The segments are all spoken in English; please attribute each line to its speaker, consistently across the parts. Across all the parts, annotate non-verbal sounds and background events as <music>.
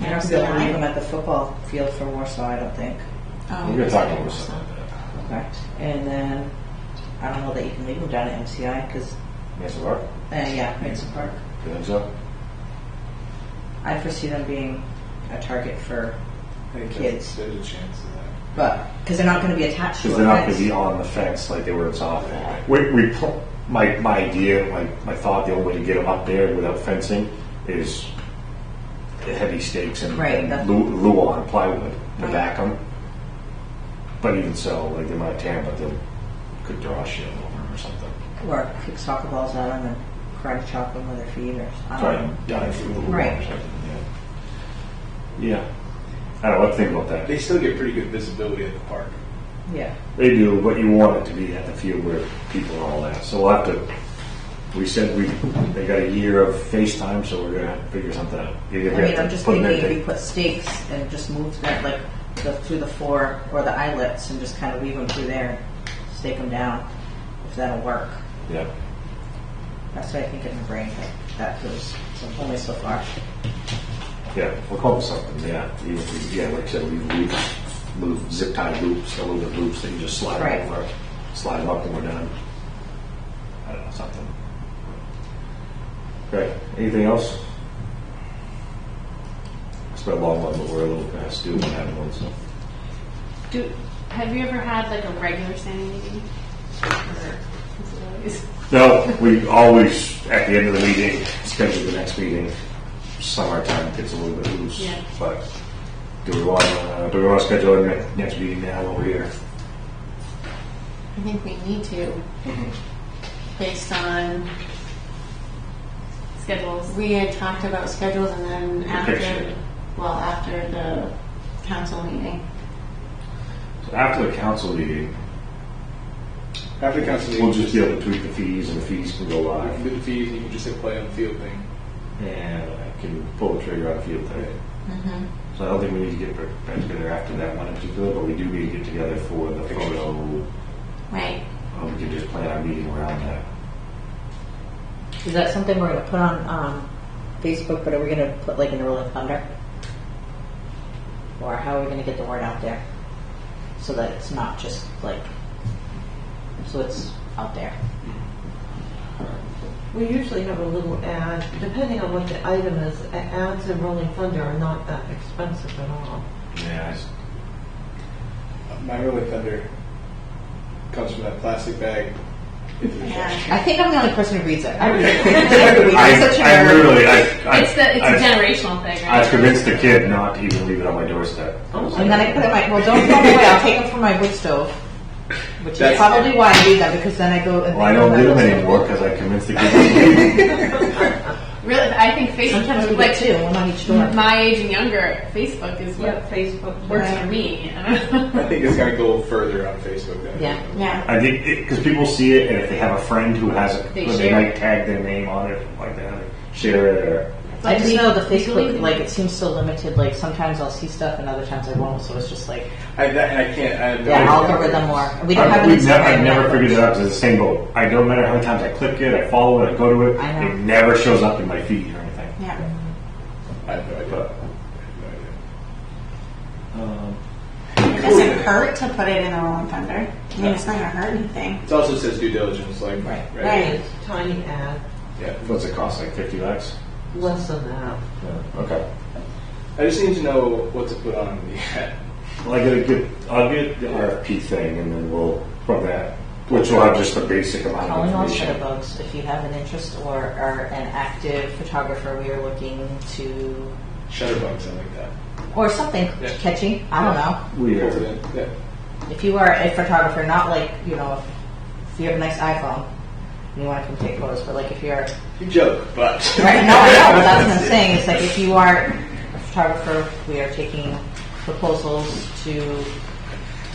Speaker 1: You're not going to leave them at the football field for Warsaw, I don't think.
Speaker 2: Oh,
Speaker 3: You're talking about
Speaker 2: Warsaw.
Speaker 3: something.
Speaker 1: Correct. And then, I don't know that you can leave them down at MCI, because,
Speaker 3: Mesa Park?
Speaker 1: uh, yeah, it's a park.
Speaker 3: You think so?
Speaker 1: I foresee them being a target for
Speaker 4: think
Speaker 1: Kids.
Speaker 4: There's there's a chance of that.
Speaker 1: But because they're not going to be attached to a
Speaker 3: Because they're not going
Speaker 1: fence.
Speaker 3: to be on the fence like they were at softball. We, we, pl- my, my idea, my, my thought, the only way to get them up there without fencing is heavy stakes and,
Speaker 1: Right,
Speaker 3: and
Speaker 1: that's-
Speaker 3: lu- luau, plywood to
Speaker 1: Right.
Speaker 3: back them. But even so, like they might tear 'em, but they could draw shit over 'em or something.
Speaker 1: or kick soccer balls at them and karate chop them with their feet or I
Speaker 3: Try
Speaker 1: don't know.
Speaker 3: and dive through the luau or
Speaker 1: Um, Right.
Speaker 3: something. Yeah. yeah. I don't know what to think about that.
Speaker 4: They still get pretty good visibility at the park.
Speaker 1: Yeah.
Speaker 3: They do, but you want it to be at the field where people are all at. So we'll have to. We said we they got a year of FaceTime, so we're gonna have to figure something out.
Speaker 1: I
Speaker 3: Either we have
Speaker 1: mean,
Speaker 3: to
Speaker 1: I'm just
Speaker 3: put
Speaker 1: thinking
Speaker 3: their
Speaker 1: if you
Speaker 3: thing-
Speaker 1: put stakes and just move that like the, through the floor or the eyelets and just kind of weave them through there, stake them down, if that'll work.
Speaker 3: yeah,
Speaker 1: That's what I think in my brain. Like, that goes so- only so far.
Speaker 3: yeah, we'll call it something. Yeah, even if we- yeah, like I said, we we move zip tie loops, aluminum loops that you just slide
Speaker 1: Right.
Speaker 3: over, slide them up when we're done. I don't know something. Great. Anything else? It's been a long one, but we're a little past due on that one, so.
Speaker 2: Do, have you ever had like a regular standing meeting? Or-
Speaker 3: No, we always, at the end of the meeting, schedule the next meeting. Summertime gets a little bit loose,
Speaker 2: Yeah.
Speaker 3: but do we want, uh, do we want to schedule the ne- next meeting now while we're here?
Speaker 2: I think we need to, based on schedules.
Speaker 5: We had talked about schedules and then
Speaker 3: picture.
Speaker 5: after, well, after the council meeting.
Speaker 3: So After the council meeting,
Speaker 4: After council meeting,
Speaker 3: we'll just be able to tweak the fees and the fees can go
Speaker 4: You can
Speaker 3: live.
Speaker 4: do the fees, you can just hit play on the field thing.
Speaker 3: And I can pull the trigger on field today.
Speaker 2: Mm-hmm.
Speaker 3: So I don't think we need to get back together after that one in particular, but we do need to get together for the
Speaker 4: Pictures.
Speaker 3: photo.
Speaker 5: Right.
Speaker 3: Uh, We can just plan our meeting around that.
Speaker 1: Is that something we're going to put on um, Facebook? But are we going to put like in Rolling Thunder? Or how are we going to get the word out there so that it's not just like so it's out there?
Speaker 6: We usually have a little ad, depending on what the item is, a- ads in Rolling Thunder are not that expensive at all.
Speaker 3: Yeah, it's-
Speaker 4: Uh, My really thunder comes from that plastic bag.
Speaker 5: Yeah.
Speaker 1: I think I'm the only person who reads it. I read it. <laughs>
Speaker 3: I,
Speaker 1: I'm such a
Speaker 3: I
Speaker 1: nerd.
Speaker 3: literally, I, I,
Speaker 2: It's the, it's
Speaker 3: I,
Speaker 2: a generational thing, right?
Speaker 3: I convinced the kid not to even leave it on my doorstep.
Speaker 1: And then I Oh, put it in my, well, don't throw them away. I'll take them from my wood stove. Which is
Speaker 4: That's-
Speaker 1: probably why I do that because then I go and
Speaker 3: Well, I
Speaker 1: think
Speaker 3: don't
Speaker 1: about
Speaker 3: do them
Speaker 1: it.
Speaker 3: anymore because I convinced the kid.
Speaker 2: Really, I think
Speaker 1: Sometimes we
Speaker 2: Facebook,
Speaker 1: get
Speaker 2: like
Speaker 1: two, one on each door.
Speaker 2: my age and younger, Facebook is what
Speaker 6: Facebook.
Speaker 2: works
Speaker 6: yeah.
Speaker 2: for me. I don't know.
Speaker 4: I think it's gonna go further on Facebook than.
Speaker 1: Yeah.
Speaker 5: Yeah.
Speaker 3: I think because people see it, and if they have a friend who has it,
Speaker 2: They
Speaker 3: then they
Speaker 2: share
Speaker 3: might tag their name on it, like that, or share it, or
Speaker 1: I just know the
Speaker 2: Legally-
Speaker 1: Facebook, like, it seems so limited. Like, sometimes I'll see stuff and other times I won't. So it's just like,
Speaker 4: I, that, and I can't, I have no.
Speaker 1: yeah,
Speaker 4: idea.
Speaker 1: algorithm or. We don't
Speaker 3: I,
Speaker 1: have an
Speaker 3: we've never, I've
Speaker 1: Instagram
Speaker 3: never
Speaker 1: network.
Speaker 3: figured it out because it's the same boat. I don't matter how many times I click it, I follow it, I go to it,
Speaker 1: I know.
Speaker 3: it never shows up in my feed or anything.
Speaker 5: Yeah.
Speaker 4: I have no idea.
Speaker 3: But
Speaker 4: I have no idea.
Speaker 3: um,
Speaker 5: It doesn't hurt to put it in the Rolling Thunder. I mean, it's not gonna hurt anything.
Speaker 4: It also says due diligence, like.
Speaker 1: Right.
Speaker 5: Right.
Speaker 6: It's tiny ad,
Speaker 4: Yeah.
Speaker 3: what's it cost? Like fifty bucks?
Speaker 6: less than that.
Speaker 3: Yeah. Okay.
Speaker 4: I just need to know what to put on the ad.
Speaker 3: Well, I get a good, I'll get the RFP thing, and then we'll from that, which will have just the basic amount of
Speaker 1: Calling all
Speaker 3: information.
Speaker 1: shutterbugs, if you have an interest or are an active photographer, we are looking to,
Speaker 4: Shutterbug, something like that.
Speaker 1: or something
Speaker 4: Yeah.
Speaker 1: catchy. I don't know.
Speaker 3: We
Speaker 4: Pulls it
Speaker 3: are,
Speaker 4: in. Yeah.
Speaker 1: If you are a photographer, not like, you know, if you have a nice iPhone and you want to come take photos, but like if you're, right?
Speaker 4: You joke, but.
Speaker 1: No, I know, but that's what I'm saying. It's like if you are a photographer, we are taking proposals to,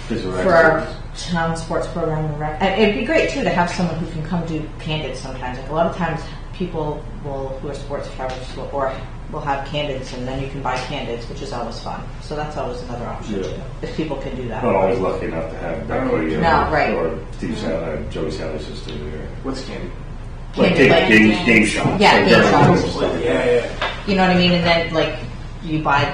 Speaker 3: physical
Speaker 1: for our
Speaker 3: experts.
Speaker 1: town sports program. and rec- And it'd be great too to have someone who can come do candid sometimes. Like a lot of times people will, who are sports photographers will, or will have candids and then you can buy candids, which is always fun. So that's always another option
Speaker 3: Yeah. Oh.
Speaker 1: too, if people can do that.
Speaker 3: Not always lucky enough to have Becky or,
Speaker 1: No, right.
Speaker 3: or uh, Steve Sally, Joey Sally's sister there.
Speaker 4: What's candy?
Speaker 3: Like
Speaker 1: Can't do
Speaker 3: take
Speaker 1: like-
Speaker 3: game, game shots.
Speaker 1: Yeah,
Speaker 3: like
Speaker 1: game
Speaker 3: very
Speaker 1: shots.
Speaker 3: close, like,
Speaker 4: Yeah, yeah.
Speaker 1: You know what I mean? And then like you buy